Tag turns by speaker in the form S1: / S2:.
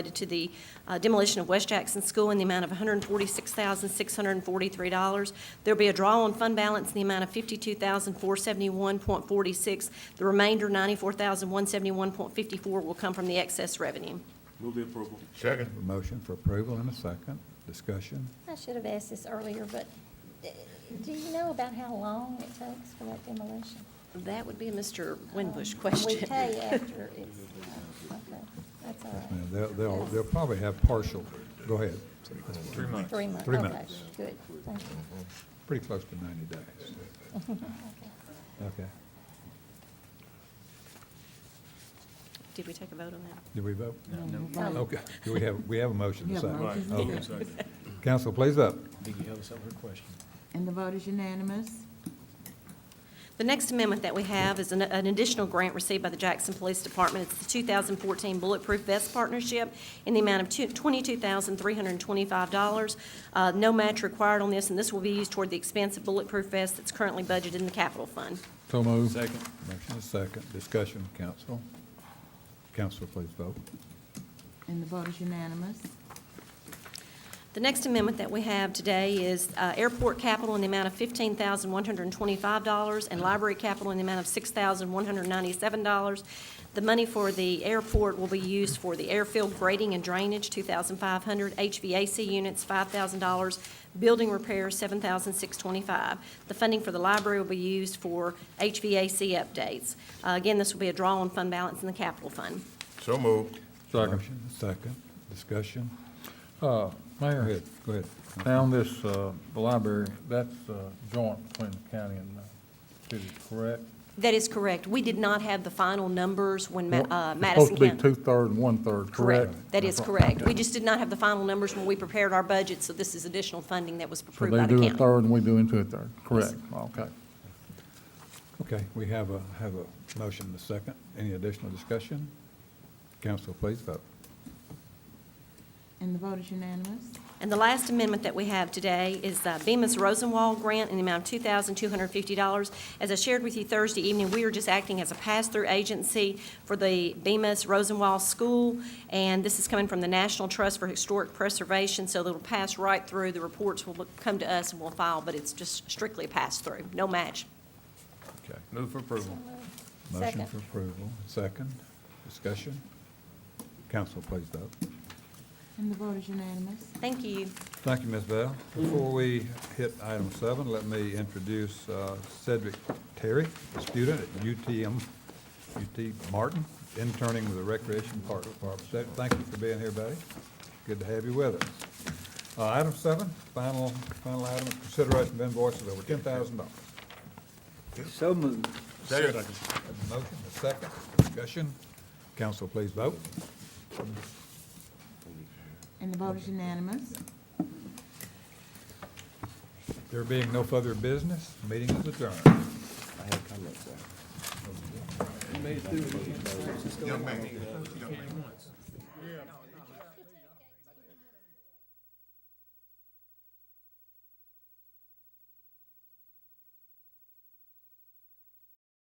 S1: related to the uh, demolition of West Jackson School in the amount of $146,643. There'll be a draw on fund balance in the amount of $52,471.46. The remainder, $94,171.54, will come from the excess revenue.
S2: Move the approval.
S3: Second.
S4: A motion for approval and a second. Discussion?
S5: I should have asked this earlier, but d- do you know about how long it takes for that demolition?
S1: That would be a Mr. Winbush
S5: Um, We
S1: question.
S5: pay after it's, oh, okay, that's all
S4: Now,
S5: right.
S4: They'll, they'll, they'll probably have partial, go ahead,
S3: Three months.
S5: Three months,
S4: Three
S5: okay,
S4: months.
S5: good, thank you.
S4: pretty close to 90 days. Okay.
S1: Did we take a vote on that?
S4: Did we vote?
S5: Um,
S4: Okay, do we have, we have a motion to
S6: We have a
S4: second?
S6: motion.
S4: Okay. Council, please up.
S6: And the vote is unanimous.
S1: The next amendment that we have is an- an additional grant received by the Jackson Police Department. It's the 2014 Bulletproof Vest Partnership in the amount of two- $22,325. Uh, No match required on this, and this will be used toward the expense of bulletproof vest that's currently budgeted in the capital fund.
S4: So moved. Second. Motion is second. Discussion, council. Council, please vote.
S6: And the vote is unanimous.
S1: The next amendment that we have today is uh, airport capital in the amount of $15,125 and library capital in the amount of $6,197. The money for the airport will be used for the airfield grading and drainage, $2,500, HVAC units, $5,000, building repairs, $7,625. The funding for the library will be used for HVAC updates. Uh, Again, this will be a draw on fund balance in the capital fund.
S3: So moved.
S4: Motion is second. Discussion. Go
S7: Uh, Mayor,
S4: ahead, go ahead.
S7: down this, uh, the library, that's uh, joint between the county and the city, correct?
S1: That is correct. We did not have the final numbers when Ma- uh,
S7: It's
S1: Madison County.
S7: Supposed to be two-third and one-third, correct?
S1: That is
S7: That's right.
S1: correct. We just did not have the final numbers when we prepared our budget, so this is additional funding that was
S7: So
S1: approved
S7: they
S1: by the
S7: do a
S1: county.
S7: third and we do into a third, correct? Okay.
S4: Okay, we have a, have a motion and a second. Any additional discussion? Council, please vote.
S6: And the vote is unanimous.
S1: And the last amendment that we have today is uh, Bemis Rosenwall Grant in the amount of $2,250. As I shared with you Thursday evening, we are just acting as a pass-through agency for the Bemis Rosenwall School, and this is coming from the National Trust for Historic Preservation, so it'll pass right through. The reports will come to us and we'll file, but it's just strictly a pass-through, no match.
S4: Okay.
S2: Move for approval.
S5: uh,
S4: Motion
S5: Second.
S4: for approval, second, discussion. Council, please vote.
S6: And the vote is unanimous.
S1: Thank you.
S4: Thank you, Ms. Bell. Before we hit item seven, let me introduce uh, Cedric Terry, a student at UTM, UT Martin, interning with the Recreation Park Department. Cedric, thank you for being here, buddy. Good to have you with us. Uh, Item seven, final, final item, consideration of invoices over ten thousand dollars.
S8: So moved.
S3: Second.
S4: Motion, a second, discussion. Council, please vote.
S6: And the vote is unanimous.
S4: There being no further business, meeting is adjourned.
S3: Young man, young man.